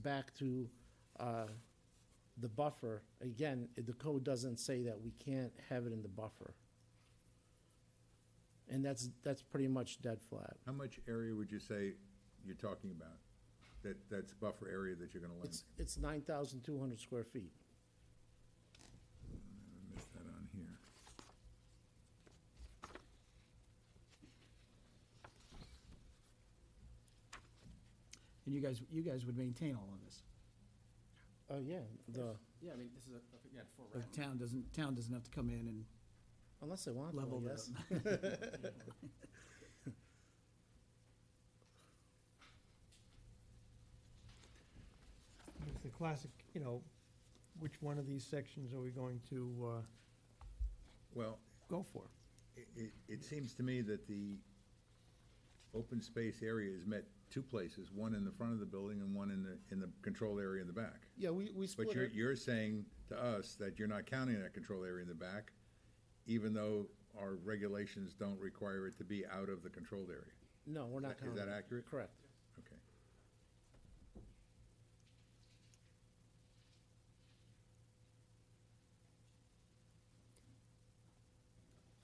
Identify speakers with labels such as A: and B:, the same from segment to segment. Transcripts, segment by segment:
A: back to uh, the buffer, again, i- the code doesn't say that we can't have it in the buffer. And that's, that's pretty much dead flat.
B: How much area would you say you're talking about? That, that's buffer area that you're gonna limit?
A: It's, it's 9,200 square feet.
B: I missed that on here.
C: And you guys, you guys would maintain all of this.
A: Oh, yeah, the,
D: Yeah, I mean, this is a, a- yeah, for
C: The
D: rent.
C: town doesn't, town doesn't have to come in and
A: unless they want to,
C: level
A: I
C: it
A: guess.
C: up.
E: It's the classic, you know, which one of these sections are we going to uh,
B: Well,
E: go for?
B: i- it, it seems to me that the open space area is met two places, one in the front of the building and one in the, in the control area in the back.
A: Yeah, we, we
B: But
A: split
B: you're,
A: it.
B: you're saying to us that you're not counting that control area in the back, even though our regulations don't require it to be out of the controlled area.
A: No, we're not
B: Is that- is
A: counting.
B: that accurate?
A: Correct.
B: Okay.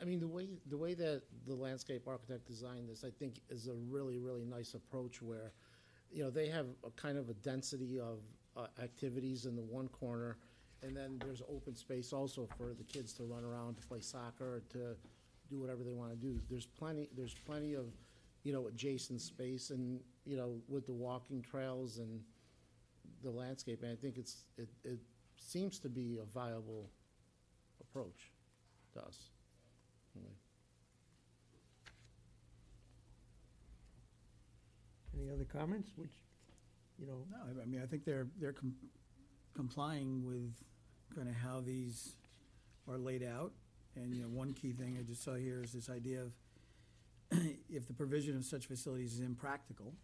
A: I mean, the way, the way that the landscape architect designed this, I think, is a really, really nice approach where, you know, they have a kind of a density of uh, activities in the one corner, and then there's open space also for the kids to run around, to play soccer, to do whatever they want to do. There's plenty, there's plenty of, you know, adjacent space and, you know, with the walking trails and the landscape, and I think it's, it, it seems to be a viable approach to us.
E: Any other comments, which, you know,
C: No, I- I mean, I think they're, they're com- complying with kind of how these are laid out. And, you know, one key thing I just saw here is this idea of if the provision of such facilities is impractical,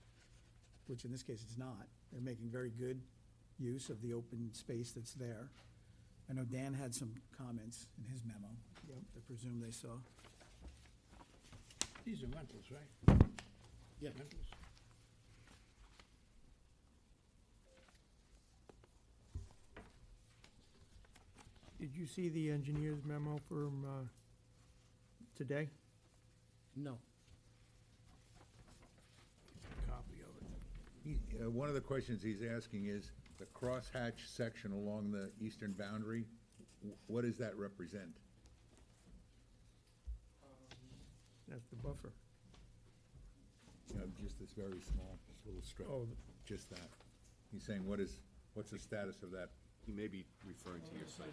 C: which in this case it's not, they're making very good use of the open space that's there. I know Dan had some comments in his memo.
E: Yep.
C: I presume they saw.
F: These are rentals, right?
A: Yeah.
F: Rentals?
E: did you see the engineer's memo from uh, today?
A: No.
F: Copy of it.
B: He- uh, One of the questions he's asking is, the crosshatch section along the eastern boundary, wh- what does that represent?
E: That's the buffer.
B: You know, just this very small little strip,
E: Oh.
B: just that. He's saying, what is, what's the status of that?
D: He may be referring to your site.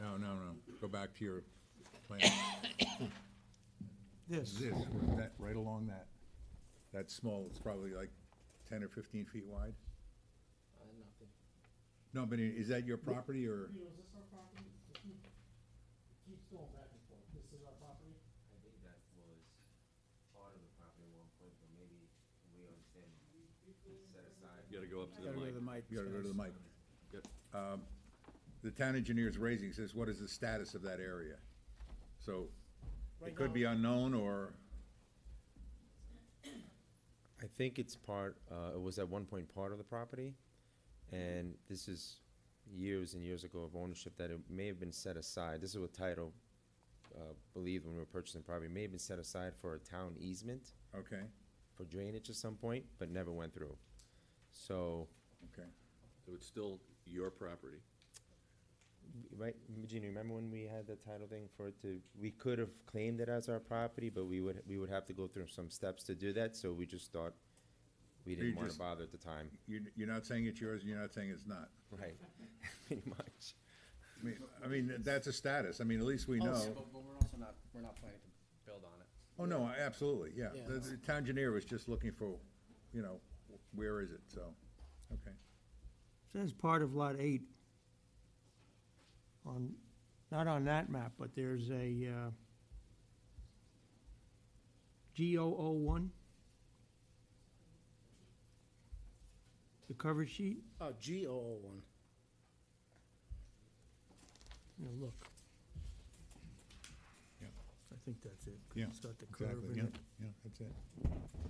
B: No, no, no, go back to your plan.
E: This,
B: This, that, right along that, that small, it's probably like ten or fifteen feet wide? No, but i- is that your property or?
A: is this our property? It keep- it keeps going back and forth. This is our property?
G: I think that was part of the property at one point, but maybe we understand set aside.
D: You gotta go up to the
C: Gotta go to
D: mic.
C: the mic.
B: You gotta go to the mic.
D: Good.
B: Um, The town engineer's raising, says, what is the status of that area? So, it
A: Right
B: could be unknown, or,
G: I think it's part, uh, it was at one point part of the property, and this is years and years ago of ownership that it may have been set aside. This is what title, uh, believed when we were purchasing the property, It may have been set aside for a town easement
B: okay,
G: for drainage at some point, but never went through. So,
B: okay.
D: So it's still your property.
G: Right, Gina, remember when we had the title thing for it to, we could have claimed it as our property, but we would, we would have to go through some steps to do that, so we just thought we
B: You
G: didn't wanna
B: just-
G: bother at the time.
B: You're, you're not saying it's yours, and you're not saying it's not.
G: Right, pretty much.
B: I mean, I mean, that's a status, I mean, at least we know.
D: Oh, But, but we're also not, we're not planning to build on it.
B: Oh, no, I- absolutely, yeah.
A: Yeah.
B: The the town engineer was just looking for, you know, where is it, so, okay.
E: says part of Lot 8 on, not on that map, but there's a uh, G001. The cover sheet,
A: Oh, G O O one.
E: you know, look.
B: Yeah.
E: I think that's it.
B: Yeah,
E: It's got the curve in it.
B: yeah, that's it.